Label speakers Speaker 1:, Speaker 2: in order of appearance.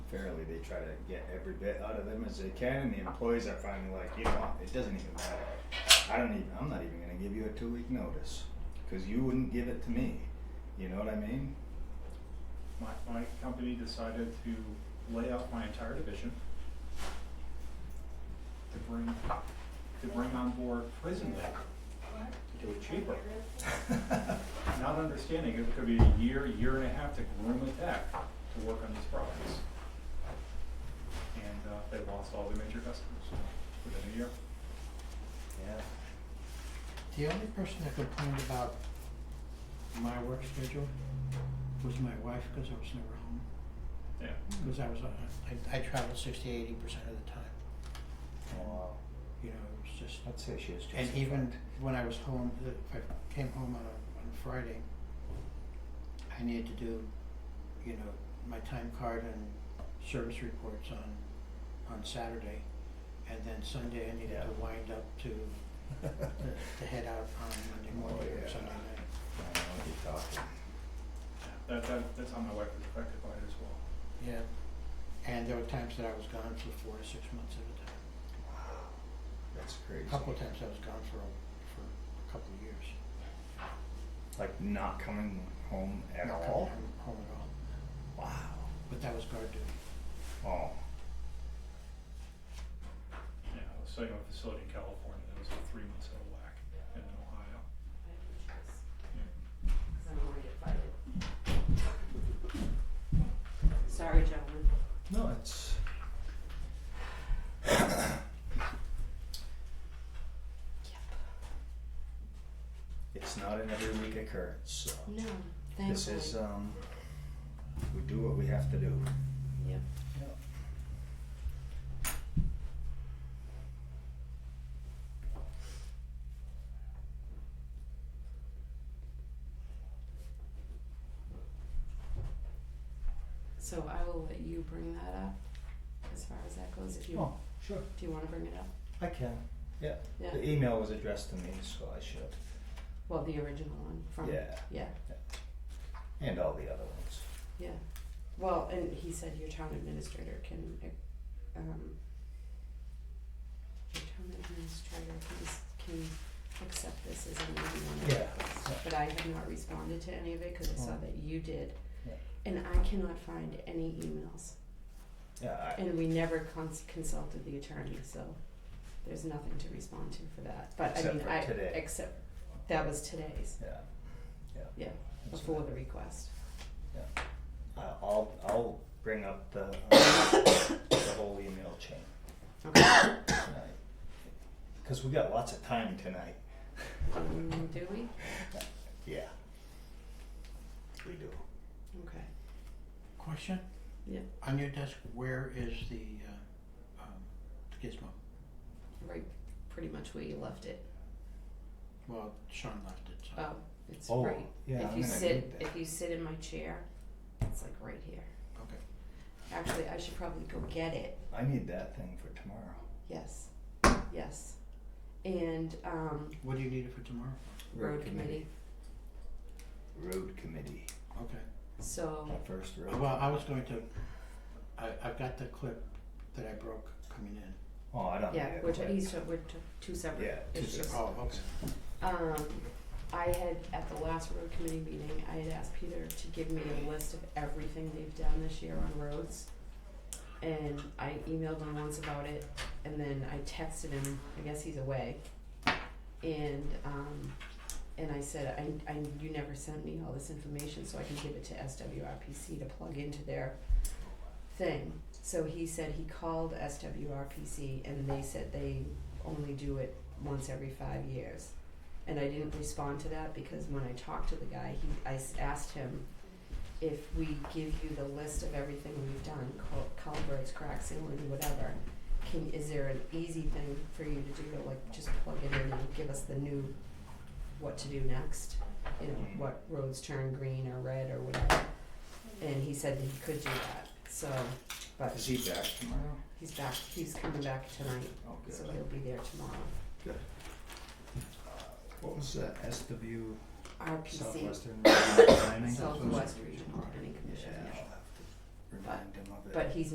Speaker 1: fairly. They try to get every bit out of them as they can, and the employees are finally like, you know, what? it doesn't even matter. I don't even. I'm not even going to give you a two week notice because you wouldn't give it to me. You know what I mean?
Speaker 2: My, my company decided to lay off my entire division to bring, to bring on board prison labor, to do it cheaper. Not understanding it could be a year, year and a half to groom a tech to work on these products. And, uh, they lost all their major customers within a year.
Speaker 1: Yeah.
Speaker 3: The only person that complained about my work schedule was my wife, cause I was never home,
Speaker 2: Yeah,
Speaker 1: Hmm.
Speaker 3: cause I was, on- I, I traveled sixty, eighty percent of the time,
Speaker 1: Wow.
Speaker 3: you know, it was just.
Speaker 1: I'd say she was just.
Speaker 3: Oh, And even when I was home, the- if I came home on a, on a Friday, I needed to do, you know, my time card and service reports on, on Saturday. And then Sunday, I needed
Speaker 1: Yeah.
Speaker 3: to wind up to, uh, to head out on Monday morning
Speaker 1: Oh, yeah.
Speaker 3: or Sunday night.
Speaker 1: I don't know what you're talking.
Speaker 2: that, that, that's how my wife was affected by it as well.
Speaker 3: Yeah, and there were times that I was gone for four to six months at a time.
Speaker 1: That's crazy.
Speaker 3: A couple of times I was gone for, a- for a couple of years.
Speaker 1: Like not coming home at
Speaker 3: Not coming
Speaker 1: all.
Speaker 3: home- Home at all,
Speaker 1: Wow.
Speaker 3: but that was guard duty.
Speaker 1: Oh.
Speaker 2: Yeah, I was studying on a facility in California that was like three months out of whack, and in Ohio.
Speaker 4: Sorry, gentlemen.
Speaker 1: No, it's. It's not an every week occurrence, so.
Speaker 4: No, thankfully.
Speaker 1: This is, um, we do what we have to do.
Speaker 4: Yep. So I will let you bring that up as far as that goes, if you,
Speaker 1: Oh, sure,
Speaker 4: do you wanna bring it up?
Speaker 1: I can. Yeah,
Speaker 4: Yeah.
Speaker 1: the email was addressed to me, so I should.
Speaker 4: Well, the original one from,
Speaker 1: Yeah,
Speaker 4: yeah,
Speaker 1: and all the other ones.
Speaker 4: yeah. Well, and he said your town administrator can, um, your town administrator can, s- can accept this as an email.
Speaker 1: Yeah, yeah.
Speaker 4: But I have not responded to any of it, cause I saw
Speaker 1: Oh.
Speaker 4: that you did.
Speaker 1: Yeah.
Speaker 4: And I cannot find any emails,
Speaker 1: Yeah, I,
Speaker 4: and we never cons- consulted the attorney, so there's nothing to respond to for that, but I
Speaker 1: Except
Speaker 4: mean,
Speaker 1: for
Speaker 4: I,
Speaker 1: today.
Speaker 4: except, that was today's,
Speaker 1: yeah, yeah.
Speaker 4: yeah,
Speaker 1: that's
Speaker 4: before
Speaker 1: fine.
Speaker 4: the request.
Speaker 1: I- I'll, I'll bring up the, um, the whole email chain
Speaker 4: Okay.
Speaker 1: tonight. Cause we got lots of time tonight.
Speaker 4: Um, do we?
Speaker 1: Yeah. We do.
Speaker 4: Okay.
Speaker 3: Question?
Speaker 4: Yeah.
Speaker 3: On your desk, where is the, uh, um, the gizmo?
Speaker 4: Right, pretty much where you left it.
Speaker 3: Well, Sean left it, so.
Speaker 4: Oh, it's
Speaker 1: Oh,
Speaker 4: right.
Speaker 1: yeah, I'm
Speaker 4: if you
Speaker 1: gonna
Speaker 4: sit,
Speaker 1: need that.
Speaker 4: if you sit in my chair, it's like right here.
Speaker 3: Okay.
Speaker 4: Actually, I should probably go get it.
Speaker 1: I need that thing for tomorrow.
Speaker 4: Yes, yes. And um,
Speaker 3: What do you need it for tomorrow?
Speaker 4: road committee.
Speaker 1: Road committee,
Speaker 3: Okay.
Speaker 4: So
Speaker 1: my first road.
Speaker 3: Well, I was going to, I, I've got the clip that I broke coming in.
Speaker 1: Oh, I don't need
Speaker 4: yeah,
Speaker 1: it.
Speaker 4: we're t- he's t- we're t- two separate
Speaker 1: Yeah, two
Speaker 4: issues.
Speaker 1: separate.
Speaker 3: Oh, okay.
Speaker 4: Um, I had, at the last road committee meeting, I had asked Peter to give me a list of everything they've done this year on roads. And I emailed him once about it, and then I texted him, I guess he's away. And, um, and I said, I, I, you never sent me all this information, so I can give it to SWRPC to plug into their thing. So he said he called SWRPC and they said they only do it once every five years. And I didn't respond to that because when I talked to the guy, he, I s- asked him if we give you the list of everything we've done, cul- culverts, crack sealing, whatever, can, is there an easy thing for you to do, like just plug it in and give us the new, what to do next? You know, what roads turn green or red or whatever. And he said that he could do that, so, but
Speaker 1: Is he back tomorrow?
Speaker 4: he's back, he's coming back tonight,
Speaker 1: Oh, good.
Speaker 4: so he'll be there tomorrow.
Speaker 1: What was that, SW
Speaker 4: RPC,
Speaker 1: Southwestern Regional Planning?
Speaker 4: Southwest Regional Planning
Speaker 1: Yeah,
Speaker 4: Commission,
Speaker 1: I'll have to remind him of it.
Speaker 4: but he's